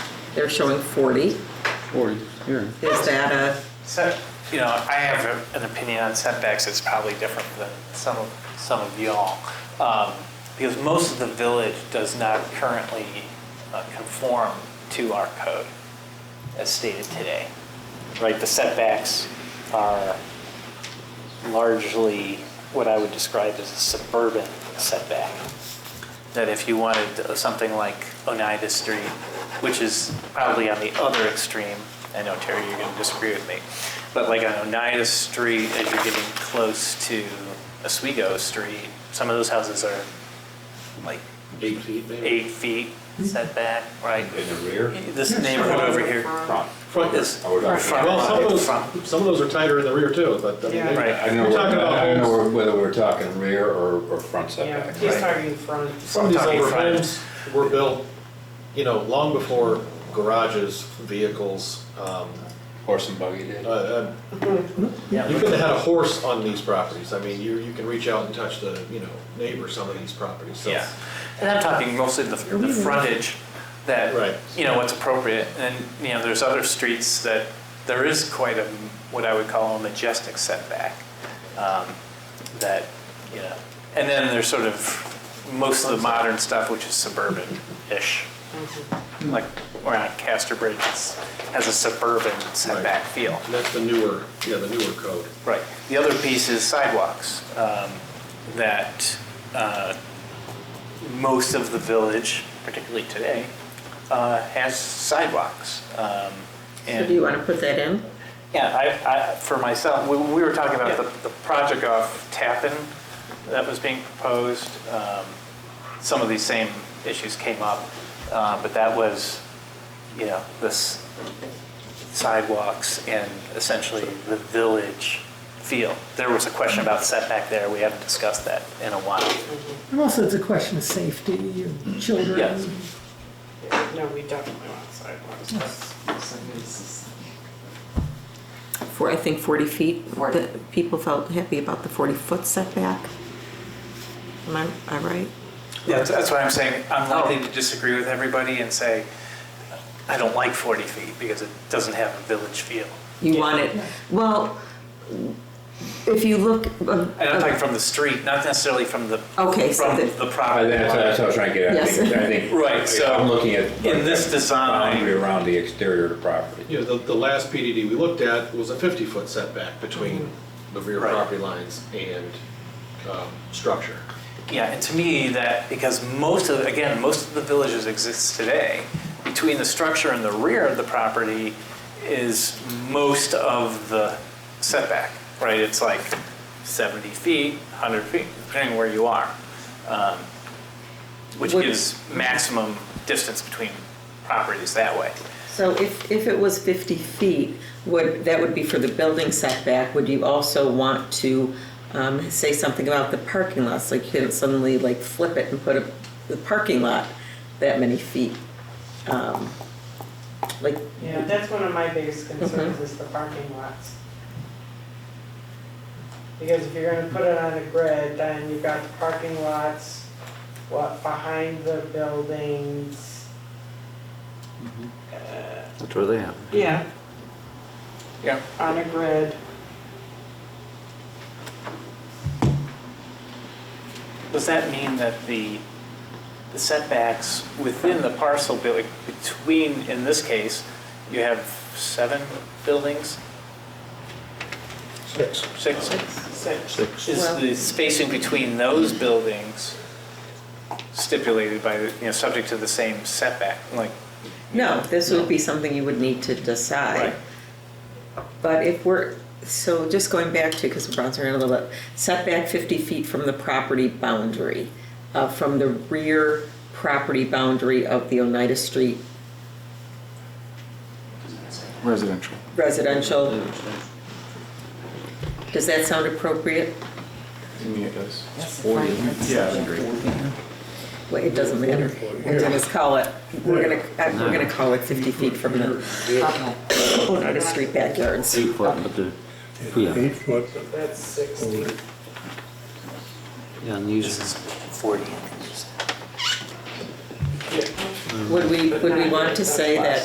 They're showing 40. Forty, yeah. Is that a, So, you know, I have a- an opinion on setbacks that's probably different than some of, some of y'all. Um, Because most of the village does not currently uh, conform to our code as stated today. Right, the setbacks are largely what I would describe as a suburban setback. That if you wanted something like Oneida Street, which is probably on the other extreme, I know Terry, you're going to disagree with me, but like on Oneida Street, as you're getting close to Oswego Street, some of those houses are like Eight feet maybe? eight feet setback, right? In the rear? This neighborhood over here. Front. Front. Is- I would- Front. Well, some of Front. those, some of those are tighter in the rear too, but I mean, Yeah. they- Right. I don't know, You're talking whether- about I don't know homes. whether we're talking rear or, or front Yeah, setback. he's targeting front. some of these Talking older front. homes were built, you know, long before garages, vehicles. um, Horse and buggy did. uh, uh, You couldn't have had a horse on these properties. I mean, you, you can reach out and touch the, you know, neighbor, some of these properties, so. Yeah, and I'm talking mostly the, the frontage Right. that, you know, what's appropriate. And, you know, there's other streets that there is quite a, what I would call a majestic setback. um, That, you know, and then there's sort of most of the modern stuff, which is suburban-ish. Like around Castor Bridge it's- has a suburban setback feel. And that's the newer, yeah, the newer code. Right. The other piece is sidewalks, um, that uh, most of the village, particularly today, uh, has sidewalks. Um, so do you And, want to put that in? yeah, I, I, for myself, we, we were talking about the, the project off Tappan that was being proposed. Um, Some of these same issues came up, uh, but that was, you know, this sidewalks and essentially the village feel. There was a question about setback there, we haven't discussed that in a while. And also, it's a question of safety, your children. Yes. No, we definitely want sidewalks. For, I think 40 feet. The People felt happy about the 40-foot setback. Am I, I right? Yeah, that's- that's what I'm saying, I'm Oh. likely to disagree with everybody and say, I don't like 40 feet because it doesn't have a village feel. You want it, well, if you look. uh, And I'm talking from the street, not necessarily from the, Okay, so from that- the I, property. that's, that's what I was trying to get at. I Yes. think- I think. Right, so I'm looking at. in this design- Boundary around the exterior of the property. You know, the, the last PDD we looked at was a 50-foot setback between the rear Right. property lines and um, structure. Yeah, and to me, that, because most of, again, most of the villages exists today, between the structure and the rear of the property is most of the setback, right? It's like 70 feet, 100 feet, depending where you are, um, which Would- gives maximum distance between properties that way. So if, if it was 50 feet, would, that would be for the building setback, would you also want to um, say something about the parking lots? Like you didn't suddenly like flip it and put a, the parking lot that many feet? um, Like, Yeah, that's one of my biggest concerns is the parking lots. Because if you're gonna put it on a grid, then you've got the parking lots, what, behind the buildings. Mm-hmm. Uh, That's where they have. Yeah. Yeah. On a grid. Does that mean that the the setbacks within the parcel building, between, in this case, you have seven buildings? Six. Six? Six. Is the spacing between those buildings stipulated by, the you know, subject to the same setback? Like, no, this would be something you would need to decide. Right. But if we're, so just going back to, because we're bouncing around a little bit, setback 50 feet from the property boundary, uh, from the rear property boundary of the Oneida Street Residential. residential, does that sound appropriate? I mean, it does. Well, it doesn't matter. We're gonna just call it, we're gonna, uh, we're gonna call it 50 feet from the Oneida Street backyards. Eight foot, but the, yeah, Eight foot, So that's sixty. yeah, and these, 40. Would we, would we want to say that